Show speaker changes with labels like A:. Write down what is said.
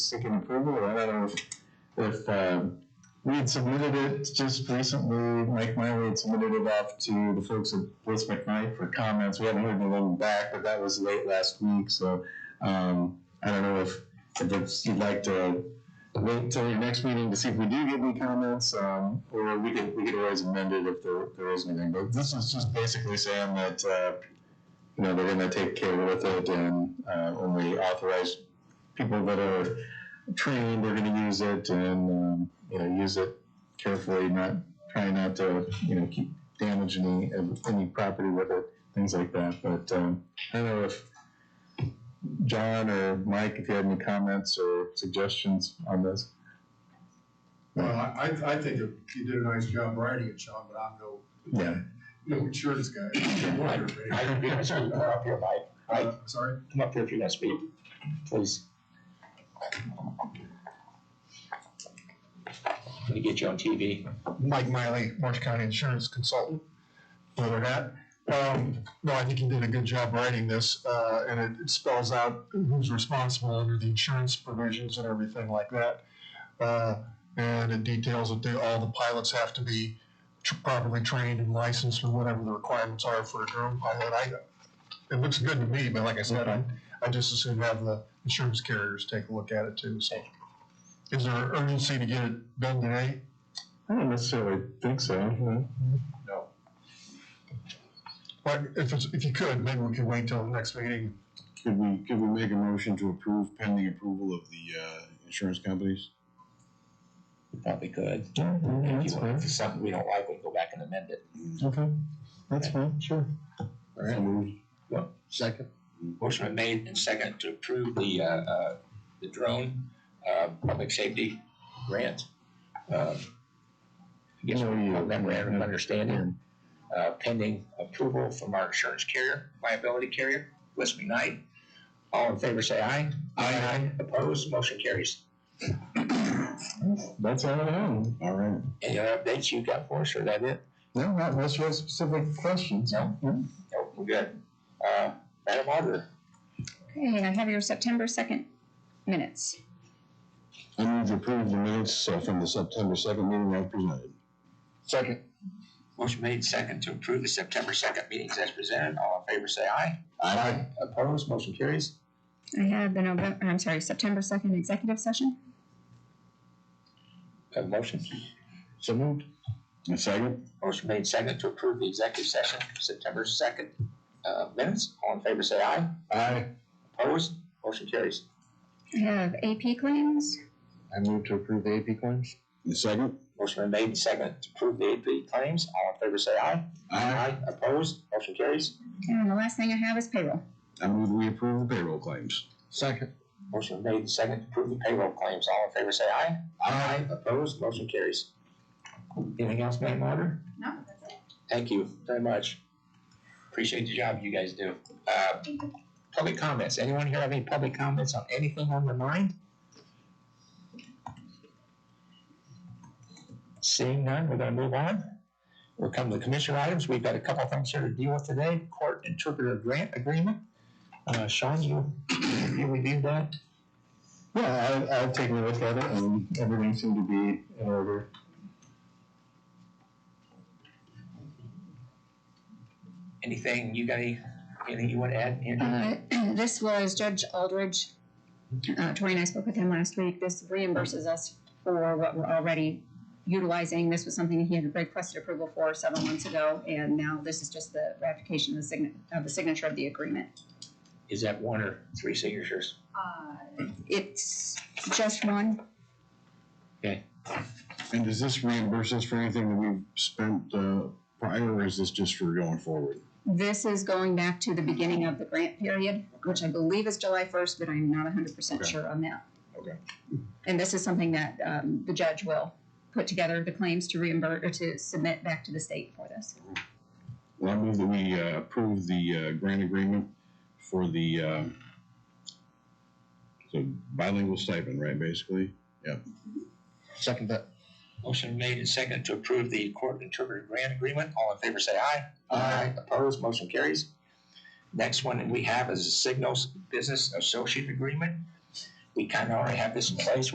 A: seeking approval, or I don't know if, if, um, we had submitted it just recently, Mike Miley had submitted it off to the folks at Bliss McKnight for comments, we haven't heard anything back, but that was late last week, so, um, I don't know if, if it's- you'd like to wait till your next meeting to see if we do get any comments, um, or we could, we could always amend it if there, there is anything, but this is just basically saying that, uh, you know, they're gonna take care with it and, uh, only authorize people that are trained are gonna use it and, um, you know, use it carefully, not, try not to, you know, keep damage any, any property with it, things like that, but, um, I don't know if John or Mike, if you had any comments or suggestions on this.
B: Well, I, I I think you did a nice job writing it, Sean, but I'm no,
A: Yeah.
B: no insurance guy. I'm a lawyer,
C: I
B: but-
C: don't get to come up here, Mike.
B: Uh, Sorry?
C: Come up here if you're gonna speak, please. Let me get you on TV.
D: Mike Miley, Orange County Insurance Consultant, leather hat. Um, no, I think you did a good job writing this, uh, and it- it spells out who's responsible under the insurance provisions and everything like that. Uh, and it details that they, all the pilots have to be tr- properly trained and licensed or whatever the requirements are for a drone pilot. I, it looks good to me, but like I said, I, I just assume have the insurance carriers take a look at it too, so. Is there urgency to get it done today?
A: I don't necessarily think so.
B: No.
D: But if it's, if you could, maybe we could wait till the next meeting.
E: Could we, could we make a motion to approve pending approval of the, uh, insurance companies?
C: You Probably could.
A: Oh, Yeah,
C: If
A: that's
C: you want,
A: fine.
C: if it's something we don't like, we can go back and amend it.
A: Okay, that's fine, sure.
E: All right, move.
C: What?
E: Second.
C: Motion been made and second to approve the, uh, uh, the drone, uh, public safety grant. Um, I guess we have that memorandum of understanding, uh, pending approval from our insurance carrier, liability carrier, West McKnight. All in favor, say aye. Aye. Opposed, motion carries.
A: That's all I have.
E: All right.
C: Any other updates you got for us, or that it?
A: No, not unless you have specific questions.
C: No. No, we're good. Uh, Madam Auditor,
F: Okay, I have your September second minutes.
E: I move to approve the minutes uh, from the September second meeting as presented.
C: Second. Motion made second to approve the September second meetings as presented. All in favor, say aye. Aye. Opposed, motion carries.
F: I have the November, I'm sorry, September second executive session.
C: Have a motion.
E: So moved. And second?
C: Motion made second to approve the executive session, September second, uh, minutes. All in favor, say aye.
E: Aye.
C: Opposed, motion carries.
F: I have AP claims.
E: I move to approve the AP claims. And second?
C: Motion been made second to approve the AP claims. All in favor, say aye. Opposed, motion carries.
F: And the last thing I have is payroll.
E: I move we approve the payroll claims. Second.
C: Motion made second to approve the payroll claims. All in favor, say aye. Aye. Opposed, motion carries. Anything else, Madam Auditor?
F: No, that's it.
C: Thank you very much. Appreciate the job you guys do. Uh, Public comments, anyone here have any public comments on anything on their mind? Seeing none, we're gonna move on. We'll come to the commission items, we've got a couple things here to deal with today, court interpreter grant agreement. Uh, Sean, you, you reviewed that?
A: Yeah, I, I've taken a look at it and everything seemed to be in order.
C: Anything, you got any, anything you wanna add? Andrew?
F: Uh, this was Judge Aldridge. Uh, Tori and I spoke with him last week. This reimburses us for what we're already utilizing. This was something he had requested approval for several months ago, and now this is just the ratification of the sign, of the signature of the agreement.
C: Is that one or three signatures?
F: It's just one,
E: And does this reimburse us for anything that we've spent, uh, prior, or is this just for going forward?
F: This is going back to the beginning of the grant period, which I believe is July first, but I'm not hundred percent
E: Okay.
F: sure on that.
E: Okay.
F: And this is something that, um, the judge will put together the claims to reimburse, or to submit back to the state for this.
E: Well, I move that we uh, approve the uh, grant agreement for the, uh, so bilingual stipend, right, basically?
C: Second that. Motion made and second to approve the court interpreter grant agreement. All in favor, say aye. Aye. Opposed, motion carries. Next one that we have is a Signals Business Associate Agreement. we kind of already have this in place.